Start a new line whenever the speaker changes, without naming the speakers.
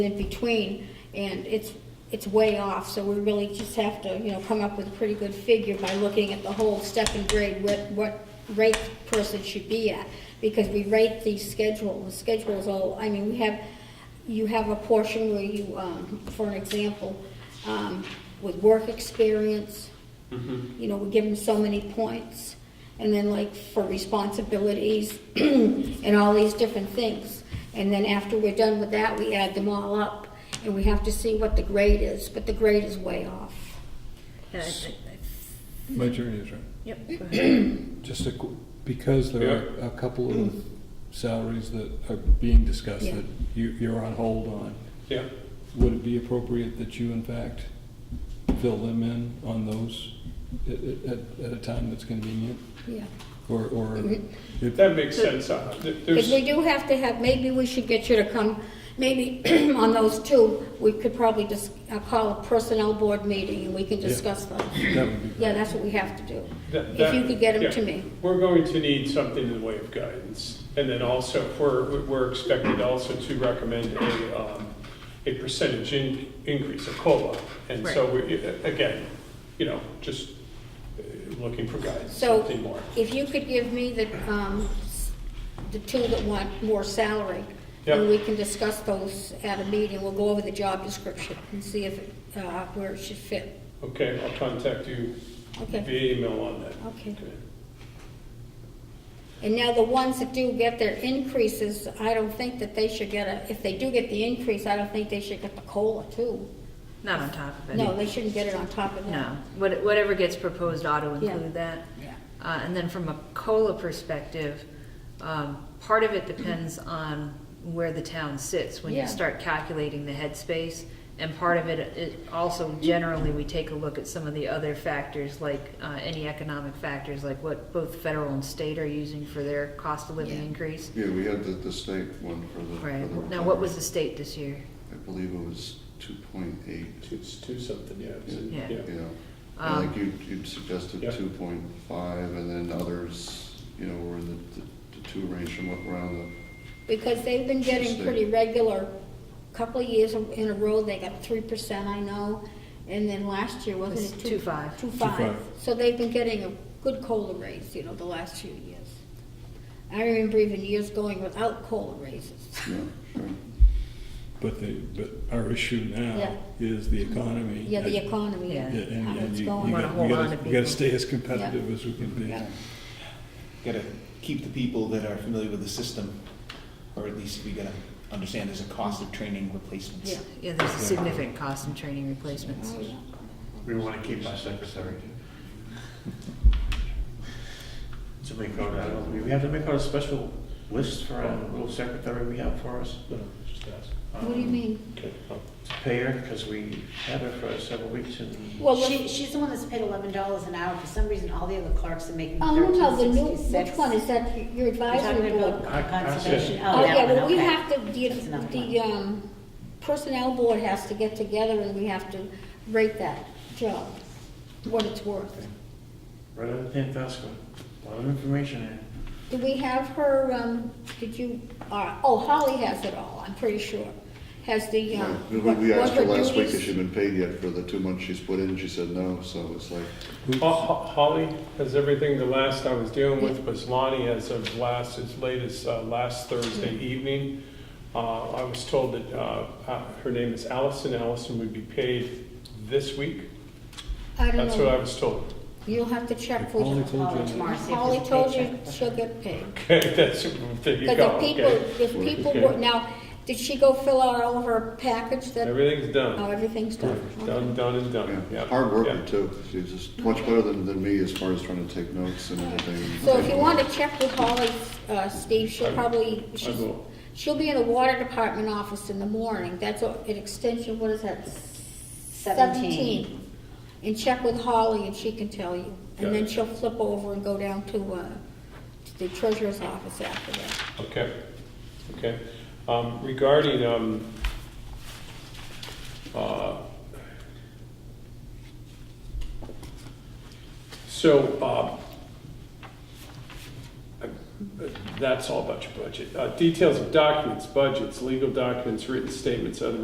in between, and it's, it's way off, so we really just have to, you know, come up with a pretty good figure by looking at the whole step and grade, what, what rate the person should be at, because we rate the schedule, the schedule's all, I mean, we have, you have a portion where you, um, for an example, um, with work experience, you know, we give them so many points, and then like for responsibilities and all these different things. And then after we're done with that, we add them all up, and we have to see what the grade is, but the grade is way off.
Yeah, I- I- I-
My journey is right.
Yep, go ahead.
Just a qu- because there are a couple of salaries that are being discussed
Yeah.
that you, you're on hold on,
Yeah,
would it be appropriate that you in fact fill them in on those at, at, at a time that's convenient?
Yeah.
Or, or if,
that makes sense. Uh, th-
Because
There's,
we do have to have, maybe we should get you to come, maybe on those two, we could probably just uh, call a personnel board meeting, and we can
Yeah.
discuss those.
that would be great.
Yeah, that's what we have to do.
That-
If
that-
you could get them to
yeah.
me.
we're going to need something in the way of guidance. And then also, we're, we're expected also to recommend a, um, a percentage in, increase, a COLA. And so, we, again, you know, just uh, looking for guidance,
So-
something more.
If you could give me the, um, s- the two that want more salary, then
Yep.
we can discuss those at a meeting, we'll go over the job description and see if, it, uh, where it should fit.
Okay, I'll contact you
Okay,
via email on that.
okay. And now the ones that do get their increases, I don't think that they should get a, if they do get the increase, I don't think they should get the COLA too.
Not on top of it.
No, they shouldn't get it on top of that.
No, What- whatever gets proposed ought to
Yeah.
include that.
Yeah.
Uh, and then from a COLA perspective, um, part of it depends on where the town sits when
Yeah.
you start calculating the headspace. And part of it, it also generally, we take a look at some of the other factors, like, uh, any economic factors, like what both federal and state are using for their cost of living
Yeah.
increase.
Yeah, we had the, the state one for the. for
Right,
the
now what was the state this year?
recovery. I believe it was two point eight,
It's two something, yeah. it's in-
Yeah.
yeah.
Um,
And Like you, you suggested
Yeah.
two point five, and then others, you know, were in the, the- the two range from what, around
Because they've been getting pretty regular, couple of years in a row, they got three percent, I know, and then last year, wasn't
It's
it two?
2.5.
Two five,
2.5.
so they've been getting a good COLA raise, you know, the last few years. I remember even years going without COLA raises.
the, yeah, sure.
But the, but our issue
Yeah.
now is the economy.
Yeah, the
and-
economy,
Yeah.
Yeah,
and
and,
how
and
it's
you, you
going.
Wanna
gotta,
hold
you
on
gotta-
to
you gotta
people.
stay as competitive as we can be.
Yeah.
gotta keep the people that are familiar with the system, or at least we gotta understand there's a cost of training replacements.
Yeah.
Yeah, there's a significant cost in training replacements.
Oh, yeah.
We want to keep our secretary. To make out, I don't, we have to make out a special list for our little secretary we have for us.
No, just ask.
What do you mean?
Okay, well, To pay her, because we had her for several weeks and
Well,
She,
let's-
she's the one that's paid eleven dollars an hour. For some reason, all the other clerks are making
oh, no,
thirteen
no, the new,
sixty-six.
which one is that, your advisory
Talking
board?
about
board?
conservation.
Oh, yeah,
that one,
well, we
okay.
have to, the,
That's another
the,
one.
um, personnel board has to get together and we have to rate that job, what it's worth.
right out of Tantasco. A lot of information there.
Do we have her, um, did you, uh, oh, Holly has it all, I'm pretty sure, has the,
Yeah.
um.
We,
what-
we
what
asked her last week
duties-
if she'd been paid yet for the two months she's put in, she said no, so it's like,
Ho- ho- Holly has everything, the last I was dealing with was Lonnie as of last, as late as uh, last Thursday evening. Uh, I was told that uh, uh, her name is Allison, Allison would be paid this week,
I don't
that's what I
know,
was told.
you'll have to check for
Only
you.
told you
Call her tomorrow, see if
Holly
there's a
told you
paycheck.
she'll get paid.
Okay, that's, there you go,
Because if
okay.
people, if people
Okay.
were, now, did she go fill out all of her package that,
Everything's
oh,
done,
everything's done?
done, done and done,
yeah,
yeah.
hard
yeah.
worker too. She's just much better than, than me as far as trying to take notes and everything.
So if you want to check with Holly, uh, Steve, she'll probably, she's-
will.
she'll be in the water department office in the morning. That's a- an extension, what is that?
Seventeen.
And check with Holly and she can tell you.
Got
And then
it.
she'll flip over and go down to, uh, to the treasurer's office after that.
Okay, okay. Um, Regarding, um, uh, so, uh, I- that's all about your budget. Uh, Details of documents, budgets, legal documents, written statements, other